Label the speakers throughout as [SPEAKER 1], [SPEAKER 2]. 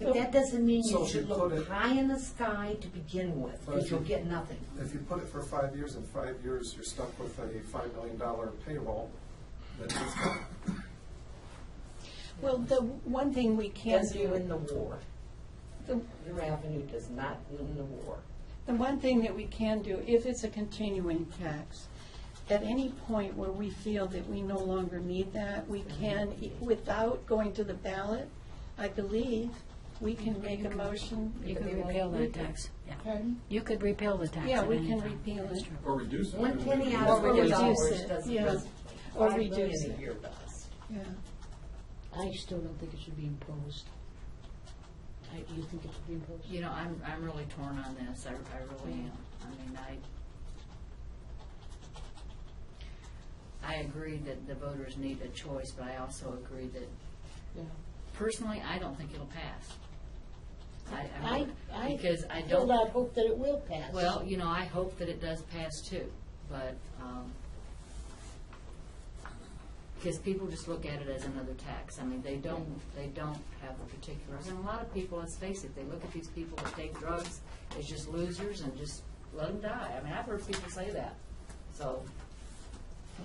[SPEAKER 1] But that doesn't mean
[SPEAKER 2] So
[SPEAKER 1] you
[SPEAKER 2] if
[SPEAKER 1] should
[SPEAKER 2] you put
[SPEAKER 1] look
[SPEAKER 2] it-
[SPEAKER 1] high in the sky to begin with,
[SPEAKER 2] But
[SPEAKER 1] because
[SPEAKER 2] if you-
[SPEAKER 1] you'll get nothing.
[SPEAKER 2] If you put it for five years, in five years, you're stuck with a five million dollar payroll, then it's not.
[SPEAKER 3] Well, the one thing we can
[SPEAKER 1] Does you
[SPEAKER 3] do,
[SPEAKER 1] win the war.
[SPEAKER 3] the,
[SPEAKER 1] Your avenue does not win the war.
[SPEAKER 3] the one thing that we can do, if it's a continuing tax, at any point where we feel that we no longer need that, we can, e, without going to the ballot, I believe, we can make a motion.
[SPEAKER 4] You could repeal
[SPEAKER 3] We
[SPEAKER 4] that
[SPEAKER 3] can-
[SPEAKER 4] tax, yeah.
[SPEAKER 3] Pardon?
[SPEAKER 4] You could repeal the tax.
[SPEAKER 3] Yeah,
[SPEAKER 4] at
[SPEAKER 3] we
[SPEAKER 4] any
[SPEAKER 3] can
[SPEAKER 4] time.
[SPEAKER 3] repeal
[SPEAKER 4] That's
[SPEAKER 3] it.
[SPEAKER 4] true.
[SPEAKER 5] Or reduce it.
[SPEAKER 1] One penny out
[SPEAKER 3] Or
[SPEAKER 1] of four
[SPEAKER 3] reduce
[SPEAKER 1] dollars
[SPEAKER 3] it,
[SPEAKER 1] doesn't.
[SPEAKER 3] yeah.
[SPEAKER 1] does-
[SPEAKER 3] Or
[SPEAKER 1] five million
[SPEAKER 3] reduce it.
[SPEAKER 1] a year does.
[SPEAKER 3] Yeah.
[SPEAKER 6] I still don't think it should be imposed. I, you think it should be imposed?
[SPEAKER 4] You know, I'm, I'm really torn on this, I, I really am. I mean, I, I agree that the voters need a choice, but I also agree that,
[SPEAKER 6] Yeah.
[SPEAKER 4] personally, I don't think it'll pass. I, I,
[SPEAKER 6] I,
[SPEAKER 4] really-
[SPEAKER 6] I
[SPEAKER 4] because I
[SPEAKER 6] still
[SPEAKER 4] don't.
[SPEAKER 6] not hope that it will pass.
[SPEAKER 4] Well, you know, I hope that it does pass too, but, um, because people just look at it as another tax. I mean, they don't, they don't have the particulars. And a lot of people, let's face it, they look at these people that take drugs as just losers and just let them die. I mean, I've heard people say that, so.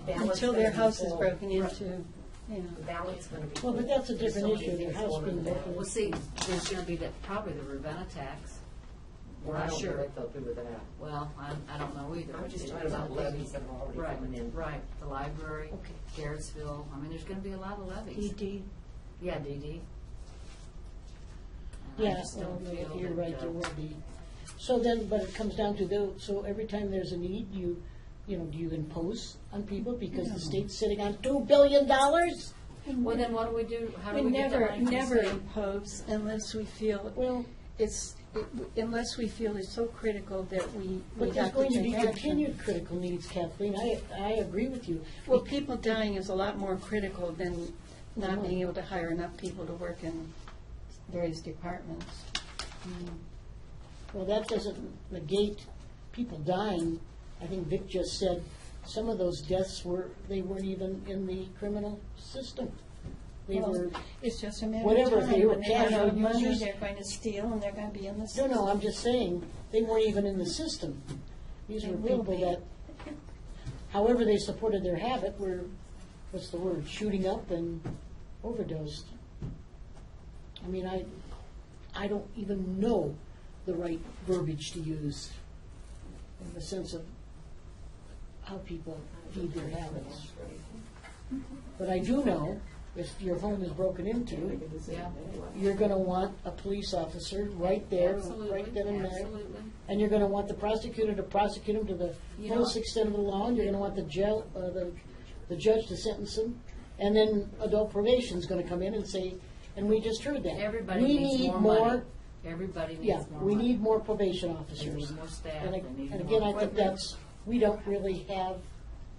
[SPEAKER 1] Balance
[SPEAKER 3] Until their
[SPEAKER 1] gonna be
[SPEAKER 3] house is
[SPEAKER 1] full.
[SPEAKER 3] broken into, yeah.
[SPEAKER 1] The ballot's gonna be.
[SPEAKER 6] Well, but that's a
[SPEAKER 1] full.
[SPEAKER 6] different
[SPEAKER 1] Somebody
[SPEAKER 6] issue, the
[SPEAKER 1] thinks
[SPEAKER 6] house
[SPEAKER 1] one of
[SPEAKER 6] being
[SPEAKER 1] the
[SPEAKER 6] broken.
[SPEAKER 4] Well, see, there's gonna be that, probably the Ravenna tax.
[SPEAKER 1] Well, I don't know if they'll do with that.
[SPEAKER 4] Well, I, I don't know either.
[SPEAKER 1] I'm just
[SPEAKER 4] It-
[SPEAKER 1] talking about
[SPEAKER 4] it's-
[SPEAKER 1] levies that are already
[SPEAKER 4] Right,
[SPEAKER 1] coming in.
[SPEAKER 4] right, the library,
[SPEAKER 1] Okay.
[SPEAKER 4] Garrettsville, I mean, there's gonna be a lot of levies.
[SPEAKER 3] DD.
[SPEAKER 4] Yeah, DD. And I
[SPEAKER 6] Yeah,
[SPEAKER 4] just
[SPEAKER 6] well,
[SPEAKER 4] don't feel
[SPEAKER 6] you're
[SPEAKER 4] that,
[SPEAKER 6] right,
[SPEAKER 4] uh,
[SPEAKER 6] there will be. So then, but it comes down to though, so every time there's a need, you, you know, do you impose on people because the state's sitting on two billion dollars?
[SPEAKER 4] Well, then what do we do, how
[SPEAKER 3] We
[SPEAKER 4] do we get
[SPEAKER 3] never,
[SPEAKER 4] that money from the
[SPEAKER 3] never
[SPEAKER 4] state?
[SPEAKER 3] impose unless we feel,
[SPEAKER 6] Well,
[SPEAKER 3] it's, unless we feel it's so critical that we, we
[SPEAKER 6] but there's
[SPEAKER 3] have to
[SPEAKER 6] going to be
[SPEAKER 3] take action.
[SPEAKER 6] continued critical needs, Kathleen, I, I agree with you.
[SPEAKER 3] Well, people dying is a lot more critical than not being able to hire enough people to work in various departments.
[SPEAKER 6] Well, that doesn't negate people dying. I think Vic just said some of those deaths were, they weren't even in the criminal system. They were,
[SPEAKER 3] It's just a matter of time.
[SPEAKER 6] Whatever, if they were
[SPEAKER 3] When they run out of
[SPEAKER 6] casual
[SPEAKER 3] money,
[SPEAKER 6] users-
[SPEAKER 3] they're going to steal and they're going to be in the
[SPEAKER 6] no,
[SPEAKER 3] system.
[SPEAKER 6] no, I'm just saying, they weren't even in the system. These
[SPEAKER 3] They
[SPEAKER 6] were
[SPEAKER 3] will
[SPEAKER 6] people
[SPEAKER 3] be.
[SPEAKER 6] that, however they supported their habit, were, what's the word, shooting up and overdosed. I mean, I, I don't even know the right verbiage to use in the sense of how people feed their habits. But I do know, if your home is broken into,
[SPEAKER 4] Yeah,
[SPEAKER 6] you're gonna want a police officer right there, right then
[SPEAKER 4] absolutely,
[SPEAKER 6] and there.
[SPEAKER 4] absolutely.
[SPEAKER 6] And you're gonna want the prosecutor to prosecute him to the
[SPEAKER 4] You
[SPEAKER 6] fullest
[SPEAKER 4] know-
[SPEAKER 6] extent of the law, and you're gonna want the jail, uh, the, the judge to sentence him. And then adult probation's gonna come in and say, and we just heard that.
[SPEAKER 4] Everybody
[SPEAKER 6] We
[SPEAKER 4] needs
[SPEAKER 6] need
[SPEAKER 4] more money. Everybody
[SPEAKER 6] Yeah,
[SPEAKER 4] needs more
[SPEAKER 6] we
[SPEAKER 4] money.
[SPEAKER 6] need more probation
[SPEAKER 4] They
[SPEAKER 6] officers.
[SPEAKER 4] need more staff,
[SPEAKER 6] And
[SPEAKER 4] they
[SPEAKER 6] I-
[SPEAKER 4] need
[SPEAKER 6] and again, I
[SPEAKER 4] more.
[SPEAKER 6] think that's, we don't really have,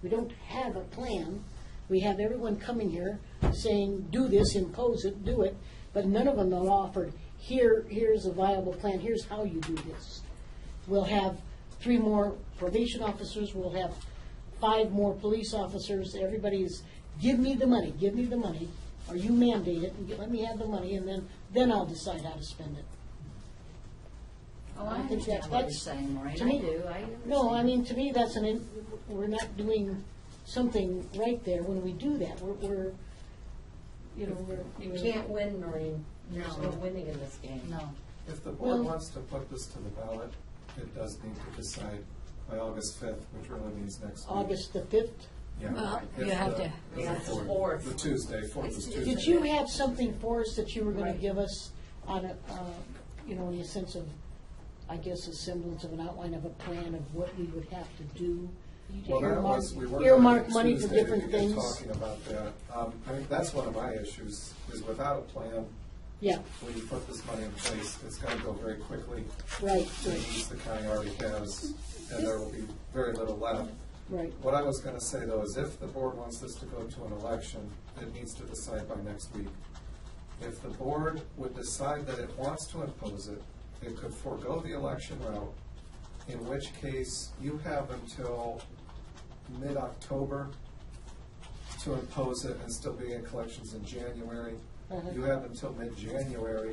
[SPEAKER 6] we don't have a plan. We have everyone coming here saying, do this, impose it, do it, but none of them have offered, here, here's a viable plan, here's how you do this. We'll have three more probation officers, we'll have five more police officers, everybody's, give me the money, give me the money, or you mandate it, and get- let me have the money, and then, then I'll decide how to spend it.
[SPEAKER 4] Oh, I
[SPEAKER 6] I think
[SPEAKER 4] understand
[SPEAKER 6] that's-
[SPEAKER 4] what you're
[SPEAKER 6] that's-
[SPEAKER 4] saying, Maureen, I
[SPEAKER 6] to me-
[SPEAKER 4] do, I understand.
[SPEAKER 6] No, I mean, to me, that's an, in- we're not doing something right there when we do that. We're, we're, you know, we're.
[SPEAKER 1] You
[SPEAKER 6] we're-
[SPEAKER 1] can't win, Maureen. There's
[SPEAKER 4] No.
[SPEAKER 1] no winning in this game.
[SPEAKER 4] No,
[SPEAKER 2] If the board
[SPEAKER 6] Well-
[SPEAKER 2] wants to put this to the ballot, it does need to decide by August fifth, which really means next week.
[SPEAKER 6] August the fifth.
[SPEAKER 2] Yeah.
[SPEAKER 4] Well,
[SPEAKER 2] If
[SPEAKER 4] you
[SPEAKER 2] the-
[SPEAKER 4] have to-
[SPEAKER 2] if the
[SPEAKER 1] Yeah, it's
[SPEAKER 2] fourth-
[SPEAKER 1] fourth.
[SPEAKER 2] The Tuesday, fourth is Tuesday.
[SPEAKER 6] Did you have something for us that you were gonna
[SPEAKER 1] Right.
[SPEAKER 6] give us on a, uh, you know, in the sense of, I guess, a semblance of an outline of a plan of what we would have to do?
[SPEAKER 2] Well, that
[SPEAKER 6] Earmark-
[SPEAKER 2] was, we were.
[SPEAKER 6] Earmark
[SPEAKER 2] gonna
[SPEAKER 6] money for
[SPEAKER 2] Tuesday
[SPEAKER 6] different
[SPEAKER 2] begin
[SPEAKER 6] things.
[SPEAKER 2] Talking about that. Um, I think that's one of my issues, is without a plan,
[SPEAKER 6] Yeah,
[SPEAKER 2] when you put this money in place, it's gonna go very quickly.
[SPEAKER 6] right,
[SPEAKER 2] to
[SPEAKER 6] right,
[SPEAKER 2] use the county already has, and there will be very little left.
[SPEAKER 6] right.
[SPEAKER 2] What I was gonna say though is if the board wants this to go to an election, it needs to decide by next week. If the board would decide that it wants to impose it, it could forego the election route, in which case you have until mid-October to impose it and still be in collections in January.
[SPEAKER 6] Uh-huh.
[SPEAKER 2] You have until mid-January